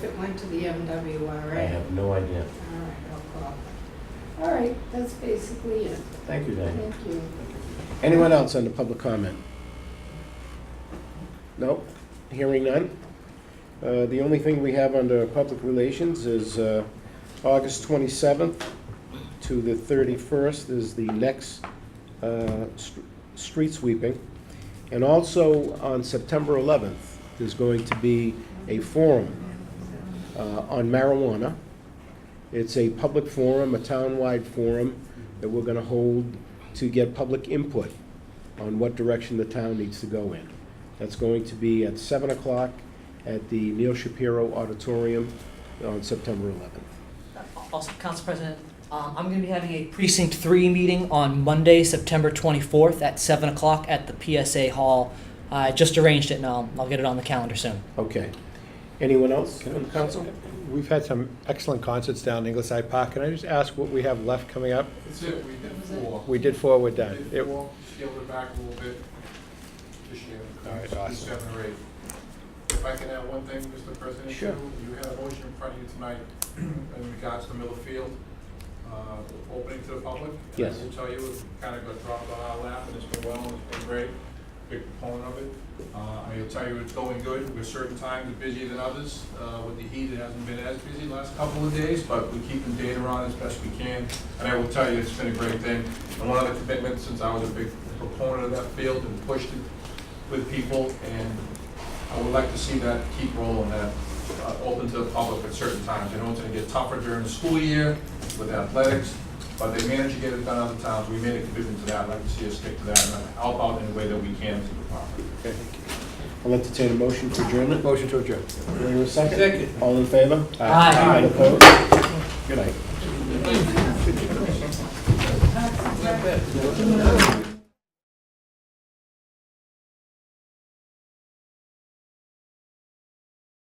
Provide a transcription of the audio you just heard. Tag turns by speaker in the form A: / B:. A: went to the MWRA.
B: I have no idea.
A: All right, no problem. All right, that's basically it.
B: Thank you, Diane.
A: Thank you.
B: Anyone else on the public comment? No? Hearing none? Uh, The only thing we have under public relations is uh, August 27th to the 31st is the next uh, str- street sweeping. And also on September 11th, there's going to be a forum uh, on marijuana. It's a public forum, a town-wide forum that we're going to hold to get public input on what direction the town needs to go in. That's going to be at 7 o'clock at the Neil Shapiro Auditorium on September 11th.
C: Also, Council President, um, I'm going to be having a Precinct 3 meeting on Monday, September 24th at 7 o'clock at the PSA Hall. I just arranged it, and I'll I'll get it on the calendar soon.
B: Okay. Anyone else from the council?
D: We've had some excellent concerts down in Ingleside Park. Can I just ask what we have left coming up?
E: That's it, we did four.
D: We did four, we're
E: We
D: done.
E: did
D: It-
E: four, scaled it back a little bit this year.
D: All right,
E: Did
D: awesome.
E: Seven or eight. If I can add one thing, Mr. President,
B: Sure.
E: too, you had a motion in front of you tonight in regards to Miller Field, uh, opening to the public. And
B: Yes.
E: I will tell you, it kind of got dropped on our lap, and it's been well, and it's been great, big proponent of it. Uh, I'll tell you, it's going good, we're certain times busier than others, uh, with the heat, it hasn't been as busy the last couple of days, but we're keeping data on as best we can, and I will tell you, it's been a great thing. And one of the commitments, since I was a big proponent of that field and pushed it with people, and I would like to see that keep rolling, that uh, open to the public at certain times. I know it's gonna get tougher during the school year with athletics, but they manage to get it done other times. We made a commitment to that, I'd like to see us stick to that and help out in a way that we can to the public.
B: Okay. I'll entertain a motion for adjournment.
D: Motion to adjourn.
B: Do I hear a second? All in favor?
C: Aye.
B: All opposed? Good night.